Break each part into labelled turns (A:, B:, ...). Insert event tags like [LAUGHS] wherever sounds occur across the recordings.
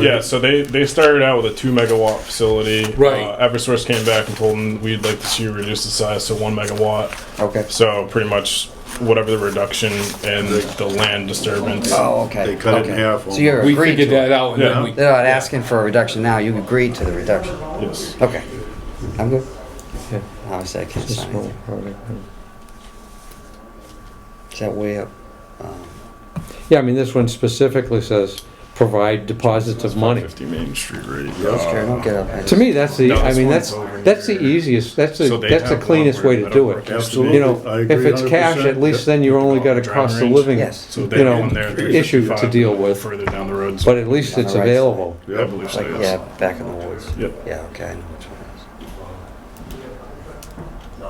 A: Yeah, so they, they started out with a two megawatt facility.
B: Right.
A: Uh, Eversource came back and told them we'd like to see you reduce the size to one megawatt.
C: Okay.
A: So pretty much whatever the reduction and the, the land disturbance.
C: Oh, okay.
D: They cut it in
C: okay.
D: half
C: So you're
B: We
C: agreed
B: figured
C: to it.
B: that out and then
A: Yeah.
B: we.
C: They're not asking for a reduction now. You agreed to the reduction.
A: Yes.
C: Okay. I'm good.
E: Yeah.
C: Obviously, I can't
E: This
C: sign
E: whole
C: anything.
E: product, huh?
C: Is that way up?
D: Uh,
C: Um,
E: Yeah, I mean, this one specifically says, provide deposits of money.
A: 50 Main Street rate. Uh,
C: Those care, don't get up.
E: To me, that's the,
A: No,
E: I
A: this
E: mean,
A: one's
E: that's,
A: over
E: that's the
A: here.
E: easiest, that's
A: So
E: the,
A: they
E: that's the
A: have one
E: closest
A: where
E: way
A: they
E: to
A: don't
E: do
A: work
E: it.
A: out.
D: Absolutely.
E: You know,
D: I
E: if
D: agree
E: it's cash,
D: 100%.
E: at least then you've only got a
A: Driving
E: cost of
A: range.
E: living,
C: Yes.
A: So
E: you
A: they
E: know,
A: went there. They
E: issue
A: found
E: to deal with,
A: Further down the road.
E: but at least
C: On the
E: it's
C: right
E: available.
A: I believe so,
C: Like,
A: yes.
C: yeah, back in the woods.
A: Yep.
C: Yeah, okay, I know which one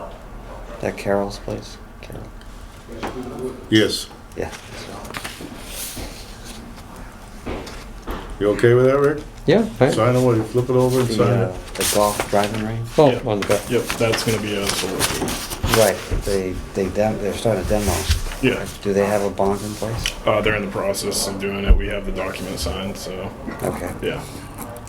C: it is. That Carol's place? Carol.
D: Yes.
C: Yeah.
D: You okay with that, Rick?
E: Yeah, I-
D: Sign away, flip it over and
C: The,
D: sign
C: uh,
D: it.
C: the golf driving range?
E: oh, on the back.
A: Yep, that's going to be a solar. field.
C: Right, they, they dem, they're starting a demo.
A: Yeah,
C: Do they have a bond in place?
A: uh, they're in the process of doing it. We have the document signed, so
C: Okay,
A: yeah,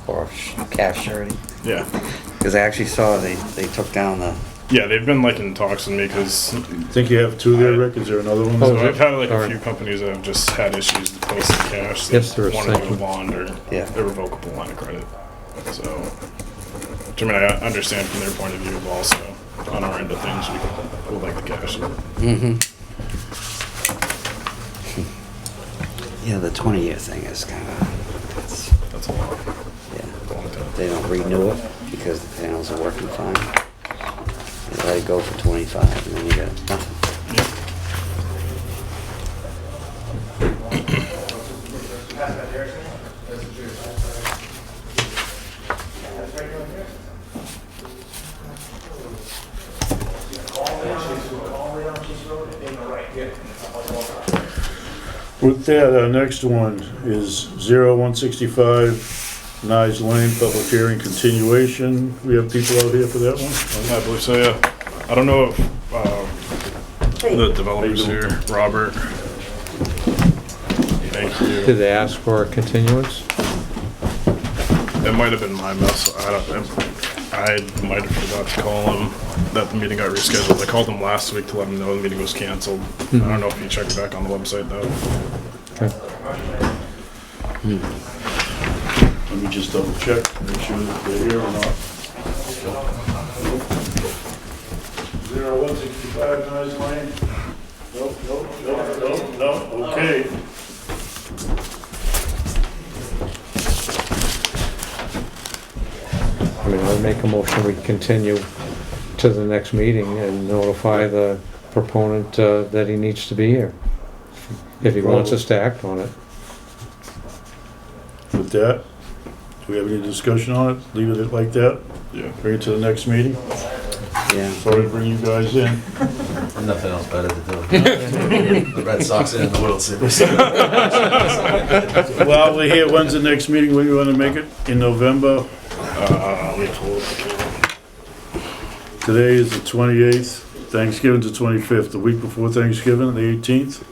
C: or sh- cash surety?
A: yeah,
C: Because I actually saw they, they took down the,
A: yeah. They've been like in talks with me because
D: Think you have two there, Rick? Is there another one?
E: Oh,
A: So
E: is it?
A: I've had like a
E: Alright.
A: few companies that have just had issues with posting cash. that
E: Yes, there is
A: Wanted to do a
E: something.
A: bond or
C: Yeah.
A: irrevocable line of credit. So, which I mean, I understand from their point of view, but also on our end of things, we would like the cash.
C: yeah, the twenty-year thing is kind of, that's,
A: That's a lot.
C: yeah. They don't renew it because the panels are working fine. They let it go for twenty-five and then you get nothing.
A: Yeah.
D: With that, our next one is 0165 Nice Lane Public Hearing Continuation. We have people out here for that one?
A: I believe so. Yeah. I don't know if um, the developers here, Robert. Thank
E: Did
A: you.
E: they ask for a continuance?
A: That might have been my mess. I don't. I might have forgot to call him that the meeting got rescheduled. I called him last week to let him know the meeting was canceled. I don't know if you checked back on the website though.
E: Okay.
D: Let me just double check, make sure that they're here or not. 0165 Nice Lane? Nope, nope, nope, nope, nope, okay.
E: I mean, I would make a motion, we continue to the next meeting and notify the proponent uh, that he needs to be here, if he wants us to act on it.
D: With that, do we have any discussion on it? Leave it like that?
A: Yeah.
D: Bring it to the next meeting?
C: Yeah.
D: Sorry to bring you
A: [LAUGHS]
D: guys in.
F: Nothing else better to do. [LAUGHS] The Red Sox in the World Series.
D: Well, we're here, when's the next meeting, when you wanna make it? In November?
A: Uh, let me pull up the calendar.
D: Today is the twenty-eighth, Thanksgiving's the twenty-fifth, the week before Thanksgiving, the eighteenth?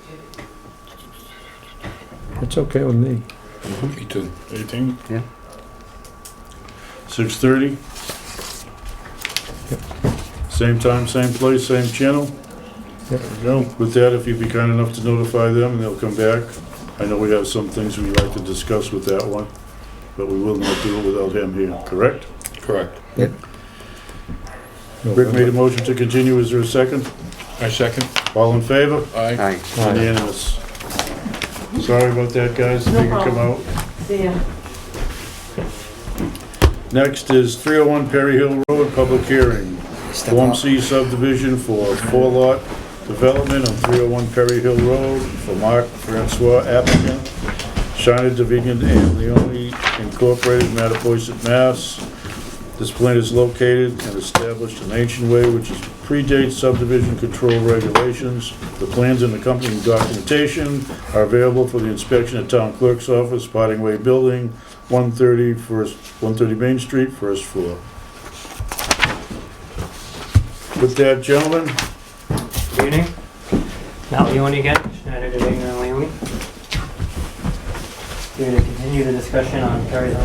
E: It's okay with me.
B: Me too.
A: 18.
D: Six thirty. Same time, same place, same channel. There
E: Yep.
D: we go. With that, if you'd be kind enough to notify them, and they'll come back. I know we have some things we'd like to discuss with that one, but we will not do it without him here, correct?
B: Correct.
D: Rick made a motion to continue, is there a second?
B: I second.
D: All in favor?
B: Aye.
C: Aye.
E: Aye.
D: Unanimous. Sorry about that, guys, if you can come out.
G: See ya.
D: Next is 301 Perry Hill Road, public hearing.
C: Step
D: Form
C: up.
D: C subdivision for four lot development on 301 Perry Hill Road for Mark Francois applicant, Shiner Division and Leone Incorporated, Mattapoisett, Mass. This plant is located and established in ancient way which is predates subdivision control regulations. The plans and accompanying documentation are available for the inspection at Town Clerk's Office, Potting Way Building, 130 First, 130 Main Street, first floor. With that, gentlemen,
H: Good evening. Matt Leone again, Schneider Division and Leone. here to continue the discussion on Perry Hill